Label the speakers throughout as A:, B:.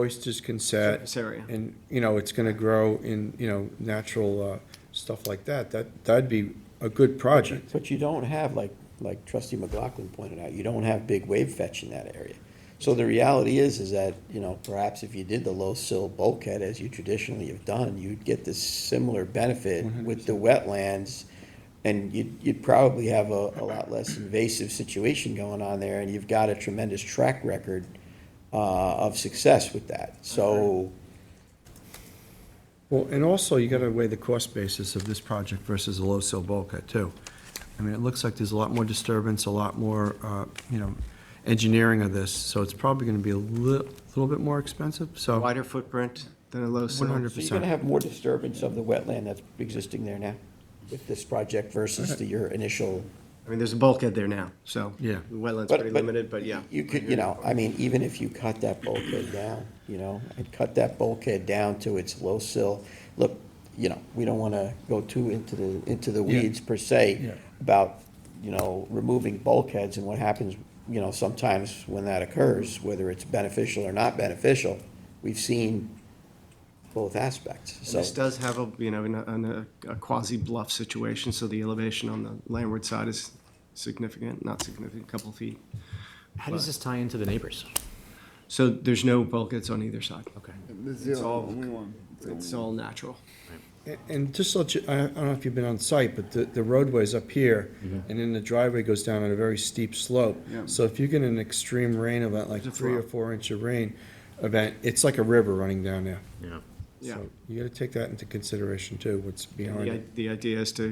A: oysters can set,
B: Surface area.
A: and, you know, it's gonna grow in, you know, natural, uh, stuff like that, that, that'd be a good project.
C: But you don't have, like, like trustee McLaughlin pointed out, you don't have big wave fetch in that area. So the reality is, is that, you know, perhaps if you did the low sill bulkhead as you traditionally have done, you'd get this similar benefit with the wetlands. And you'd, you'd probably have a, a lot less invasive situation going on there, and you've got a tremendous track record, uh, of success with that. So,
A: Well, and also, you gotta weigh the cost basis of this project versus a low sill bulkhead, too. I mean, it looks like there's a lot more disturbance, a lot more, uh, you know, engineering of this, so it's probably gonna be a li- little bit more expensive, so.
B: Wider footprint than a low sill.
A: 100%.
C: so you're gonna have more disturbance of the wetland that's existing there now with this project versus the, your initial
B: I mean, there's a bulkhead there now, so.
A: Yeah.
B: the Wetland's
C: But-
B: pretty
C: but
B: limited, but yeah.
C: You could, you know, I mean, even if you cut that bulkhead down, you know, and cut that bulkhead down to its low sill, look, you know, we don't wanna go too into the, into the
A: Yeah.
C: weeds per se
A: Yeah.
C: about, you know, removing bulkheads and what happens, you know, sometimes when that occurs, whether it's beneficial or not beneficial, we've seen both aspects,
B: And
C: so.
B: This does have a, you know, in a- in a, a quasi bluff situation, so the elevation on the landward side is significant, not significant, a couple feet.
D: How does this tie into the neighbors?
B: So there's no bulkheads on either side.
D: Okay.
B: It's all, it's all natural.
A: And- And just to let you, I I don't know if you've been on site, but the the roadway's up here,
B: Mm-hmm.
A: and then the driveway goes down on a very steep slope. So if you get an extreme rain event, like
B: It's a
A: three or
B: flop.
A: four inch of rain event, it's like a river running down there.
D: Yeah.
B: Yeah.
A: So You gotta take that into consideration too, what's behind
B: The, i-
A: it.
B: the idea is to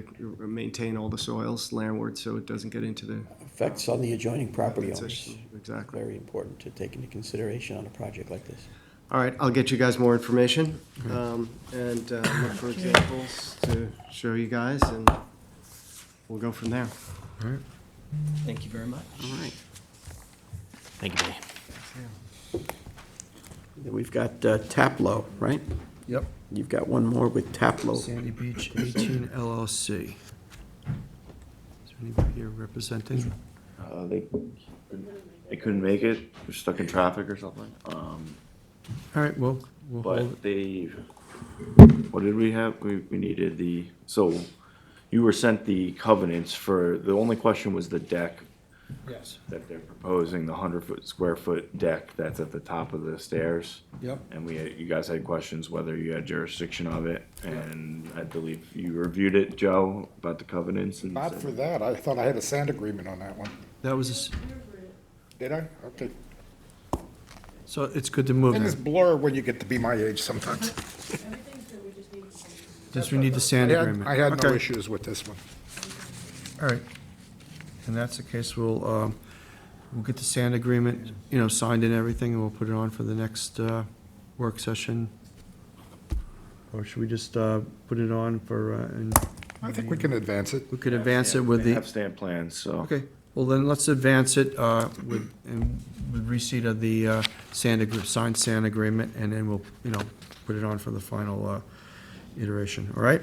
B: maintain all the soils landward, so it doesn't get into the.
C: Effects on the adjoining property owners,
B: transition. Exactly.
C: very important to take into consideration on a project like this.
B: All right, I'll get you guys more information, um, and, uh, look for examples to show you guys, and we'll go from there.
D: Thank you very much.
B: All right.
D: Thank you, Benny.
C: We've got uh, Taplow, right?
A: Yep.
C: You've got one more with Taplow.
A: Sandy Beach 18 LLC. Is there anybody here representing?
E: Uh, they, they couldn't make it, they're stuck in traffic or something, um,
A: All right, well, we'll hold it.
E: but they, what did we have? We, we needed the, so you were sent the covenants for, the only question was the deck
A: Yes.
E: that they're proposing, the hundred foot, square foot deck that's at the top of the stairs.
A: Yep.
E: And we, you guys had questions whether you had jurisdiction of it, and I believe you reviewed it, Joe, about the covenants and.
F: Not for that, I thought I had a sand agreement on that one.
A: That was, a s-
F: Did I? Okay.
A: so it's good to move
F: And
A: now.
F: it's blur when you get to be my age sometimes.
A: Since we need the sand
F: I had-
A: agreement.
F: I had no
A: Okay.
F: issues with this one.
A: All right. And that's the case, we'll, um, we'll get the sand agreement, you know, signed and everything, and we'll put it on for the next uh, work session. Or should we just uh, put it on for, uh, and
F: I think we can advance it.
A: we could advance it with
E: They
A: the,
E: have stamp plans, so.
A: okay, well then, let's advance it uh, with, and with receipt of the uh, sand, agree- signed sand agreement, and then we'll, you know, put it on for the final uh, iteration, all right?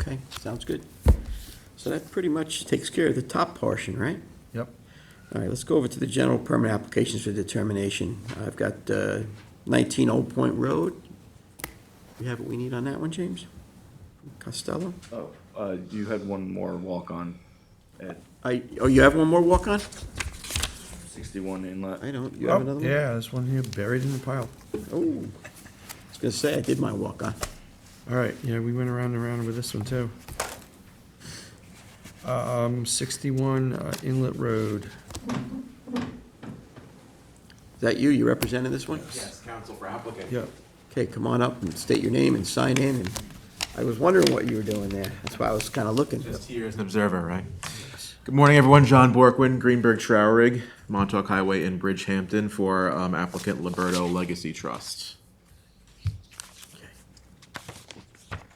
C: Okay, sounds good. So that pretty much takes care of the top portion, right?
A: Yep.
C: All right, let's go over to the general permit applications for determination. I've got uh, 19 Old Point Road. We have what we need on that one, James? Costello?
E: Oh, uh, you had one more walk-on at
C: I, oh, you have one more walk-on?
E: sixty-one inlet.
C: I don't, you have another one?
A: Oh, Yeah, there's one here buried in the pile.
C: Oh, I was gonna say, I did my walk-on.
A: All right, yeah, we went around and around with this one, too. Um, 61 uh, Inlet Road.
C: Is that you? You representing this one?
G: Yes, counsel for applicant.
A: Yeah,
C: Okay, come on up and state your name and sign in. And I was wondering what you were doing there. That's why I was kind of looking.
G: Just here as an observer, right? Good morning, everyone. John Borkwin, Greenberg Trowerig, Montauk Highway in Bridgehampton for um, applicant Liberto Legacy Trust.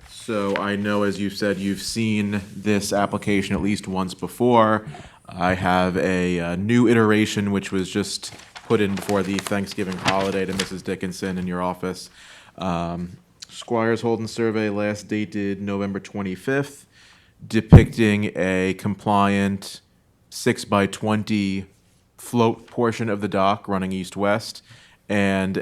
G: So I know, as you've said, you've seen this application at least once before. I have a uh, new iteration, which was just put in before the Thanksgiving holiday to Mrs. Dickinson in your office. Um, Squires Holden survey, last dated November 25th, depicting a compliant six by 20 float portion of the dock running east-west and